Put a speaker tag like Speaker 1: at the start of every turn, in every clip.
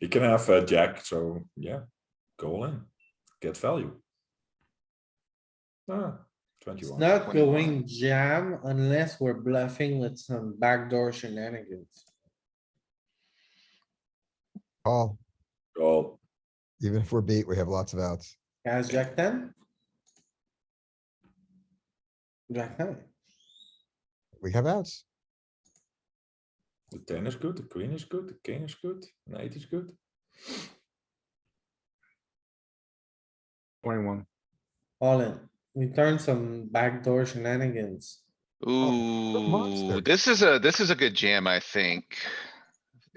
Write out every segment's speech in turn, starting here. Speaker 1: You can have a jack, so yeah, go all in, get value. Ah,
Speaker 2: It's
Speaker 1: twenty-one.
Speaker 2: not
Speaker 3: 21.
Speaker 2: going jam unless we're bluffing with some backdoor shenanigans.
Speaker 3: Call,
Speaker 1: Well,
Speaker 3: even if we're beat, we have lots of outs.
Speaker 2: Guys, jack ten? Jack ten,
Speaker 3: We have outs.
Speaker 1: the ten is good, the queen is good, the king is good, an eight is good.
Speaker 4: Twenty-one.
Speaker 2: all in. We turn some backdoor shenanigans. Oh,
Speaker 3: monster.
Speaker 5: Ooh, this is a, this is a good jam, I think.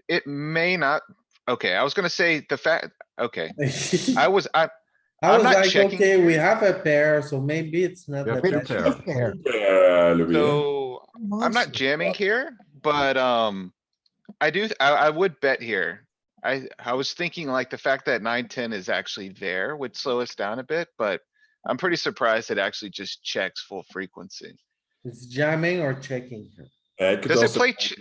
Speaker 5: It may not, okay, I was gonna say the fact, okay, I was, I,
Speaker 2: I
Speaker 5: I'm
Speaker 2: was
Speaker 5: not
Speaker 2: like,
Speaker 5: checking.
Speaker 2: okay, we have a pair, so maybe it's not.
Speaker 4: Yeah,
Speaker 2: the
Speaker 3: We
Speaker 4: two
Speaker 2: best.
Speaker 3: don't
Speaker 4: pair.
Speaker 3: have a pair.
Speaker 1: Yeah, Louis. eh?
Speaker 5: so I'm not jamming here, but, um, I do, I, I would bet here. I, I was thinking like the fact that nine, ten is actually there would slow us down a bit, but I'm pretty surprised it actually just checks full frequency.
Speaker 2: It's jamming or checking here.
Speaker 1: Yeah, could
Speaker 5: Does it
Speaker 1: also-
Speaker 5: play, ch-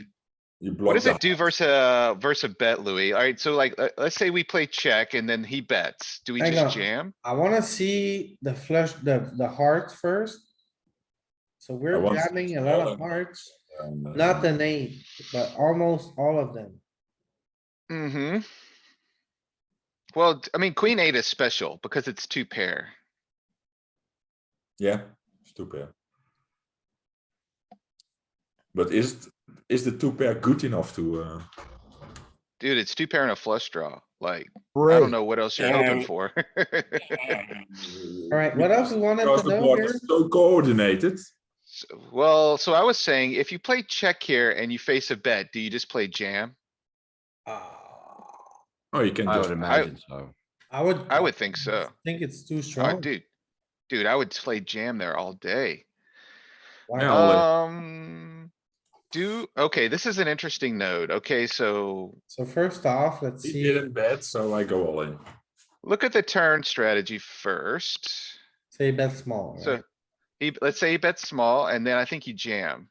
Speaker 1: You block
Speaker 5: What does
Speaker 1: the
Speaker 5: it do versus, uh, versus a bet, Louis? Alright, so like, let- let's say we play check and then he bets. Do we
Speaker 2: Hang
Speaker 5: just
Speaker 2: on.
Speaker 5: jam?
Speaker 2: I wanna see the flush, the, the hearts first. So
Speaker 1: I
Speaker 2: we're
Speaker 1: want-
Speaker 2: jamming a lot of hearts,
Speaker 1: hand, uh,
Speaker 2: not an eight, but almost all of them.
Speaker 5: Mm-hmm. Well, d- I mean, queen eight is special because it's two pair.
Speaker 1: Yeah, it's two pair. But is, it- is the two pair good enough to, uh,
Speaker 5: Dude, it's two pair and a flush draw. Like, I
Speaker 3: Great.
Speaker 5: don't know what else you're hoping for.
Speaker 2: Alright, what else we wanted
Speaker 1: because
Speaker 2: to
Speaker 1: the
Speaker 2: know
Speaker 1: board
Speaker 2: here?
Speaker 1: is so coordinated,
Speaker 5: So- Well, so I was saying, if you play check here and you face a bet, do you just play jam?
Speaker 2: Ah,
Speaker 1: oh, you can
Speaker 4: I
Speaker 1: just
Speaker 4: would imagine so.
Speaker 2: I would.
Speaker 5: I would think so.
Speaker 2: Think it's too
Speaker 5: I
Speaker 2: strong.
Speaker 5: dude. Dude, I would play jam there all day.
Speaker 2: Why
Speaker 1: Yeah.
Speaker 2: not?
Speaker 1: I'll, uh,
Speaker 5: Um, do, okay, this is an interesting node. Okay, so
Speaker 2: So first off, let's
Speaker 1: He
Speaker 2: see,
Speaker 1: didn't bet, so I go all in.
Speaker 5: look at the turn strategy first.
Speaker 2: say bet small,
Speaker 5: So
Speaker 2: right?
Speaker 5: he, let's say he bets small and then I think you jam.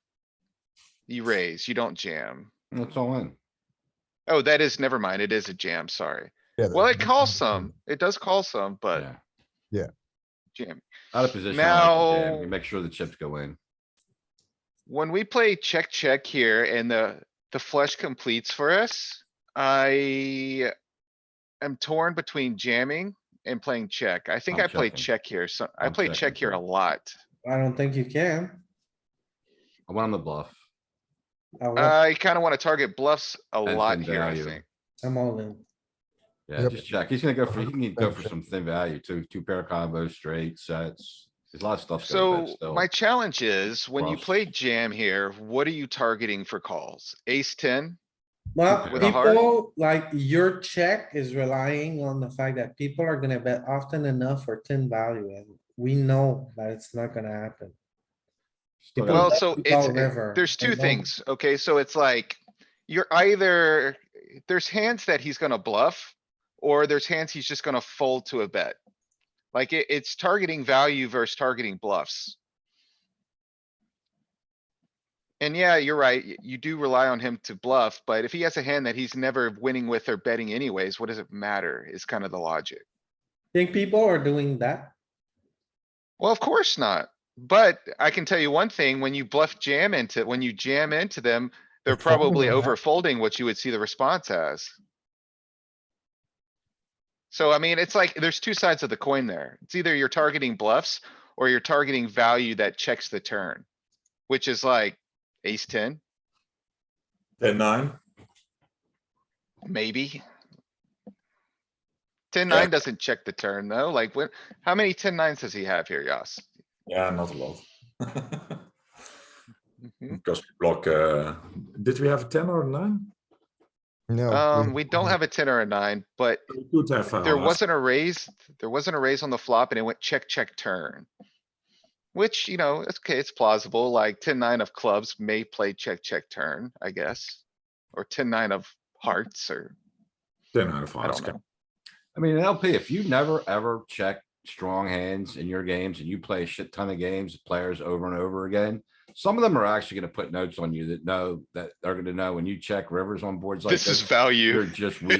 Speaker 5: You raise, you don't jam.
Speaker 4: It's all in.
Speaker 5: Oh, that is, never mind. It is a jam, sorry.
Speaker 3: Yeah,
Speaker 5: Well,
Speaker 3: the-
Speaker 5: it calls some. It does call some, but
Speaker 4: Yeah.
Speaker 5: jam.
Speaker 4: Out of position. I like to jam.
Speaker 5: Now-
Speaker 4: You make sure the chips go in.
Speaker 5: When we play check, check here and the, the flush completes for us, I am torn between jamming and playing check. I think
Speaker 4: I'm
Speaker 5: I play
Speaker 4: checking.
Speaker 5: check here. So I
Speaker 4: I'm
Speaker 5: play
Speaker 4: checking
Speaker 5: check here a
Speaker 4: too.
Speaker 5: lot.
Speaker 2: I don't think you can.
Speaker 4: I want on the bluff.
Speaker 2: I want,
Speaker 5: I kinda wanna target bluffs a
Speaker 4: And
Speaker 5: lot
Speaker 4: thin
Speaker 5: here, I
Speaker 4: value.
Speaker 5: think.
Speaker 2: I'm all in.
Speaker 4: Yeah,
Speaker 3: Yep.
Speaker 4: just check. He's gonna go for, he can go for
Speaker 3: 100%
Speaker 4: some thin value too. Two pair combos, straight sets. There's a lot of stuff.
Speaker 5: So my challenge is, when you
Speaker 4: Bluffs.
Speaker 5: play jam here, what are you targeting for calls? Ace ten?
Speaker 2: Well,
Speaker 4: With
Speaker 5: a heart?
Speaker 2: people, like your check is relying on the fact that people are gonna bet often enough for ten value and we know that it's not gonna happen. People
Speaker 5: Well,
Speaker 2: bet
Speaker 5: so
Speaker 2: without
Speaker 5: it's, it-
Speaker 2: river,
Speaker 5: there's
Speaker 2: they
Speaker 5: two
Speaker 2: don't.
Speaker 5: things, okay? So it's like, you're either, there's hands that he's gonna bluff, or there's hands he's just gonna fold to a bet. Like it, it's targeting value versus targeting bluffs. And yeah, you're right. y- You do rely on him to bluff, but if he has a hand that he's never winning with or betting anyways, what does it matter? Is kind of the logic.
Speaker 2: Think people are doing that?
Speaker 5: Well, of course not, but I can tell you one thing, when you bluff jam into, when you jam into them,
Speaker 3: They're
Speaker 5: they're
Speaker 3: folding
Speaker 5: probably
Speaker 3: a lot.
Speaker 5: over folding what you would see the response as. So I mean, it's like, there's two sides of the coin there. It's either you're targeting bluffs or you're targeting value that checks the turn. Which is like ace ten,
Speaker 1: Ten, nine,
Speaker 5: maybe. Ten
Speaker 1: Yeah.
Speaker 5: nine doesn't check the turn though, like when, how many ten nines does he have here, Yas?
Speaker 1: yeah, not a lot.
Speaker 5: Mhm.
Speaker 1: Because we block, uh, did we have a ten or a nine?
Speaker 3: No.
Speaker 5: Um, we
Speaker 3: mm-hmm.
Speaker 5: don't have a ten or a nine, but
Speaker 1: We could have. uh, a
Speaker 5: There
Speaker 1: half.
Speaker 5: wasn't a raise, there wasn't a raise on the flop and it went check, check, turn. Which, you know, it's okay, it's plausible, like 10-9 of clubs may play check, check, turn, I guess. Or 10-9 of hearts or,
Speaker 1: Ten out of
Speaker 5: I
Speaker 1: hearts.
Speaker 5: don't know.
Speaker 4: I mean, an LP, if you never ever check strong hands in your games and you play a shit ton of games, players over and over again. Some of them are actually gonna put notes on you that know that are gonna know when you check rivers on boards like
Speaker 5: This is
Speaker 4: this.
Speaker 5: value.
Speaker 4: You're just weak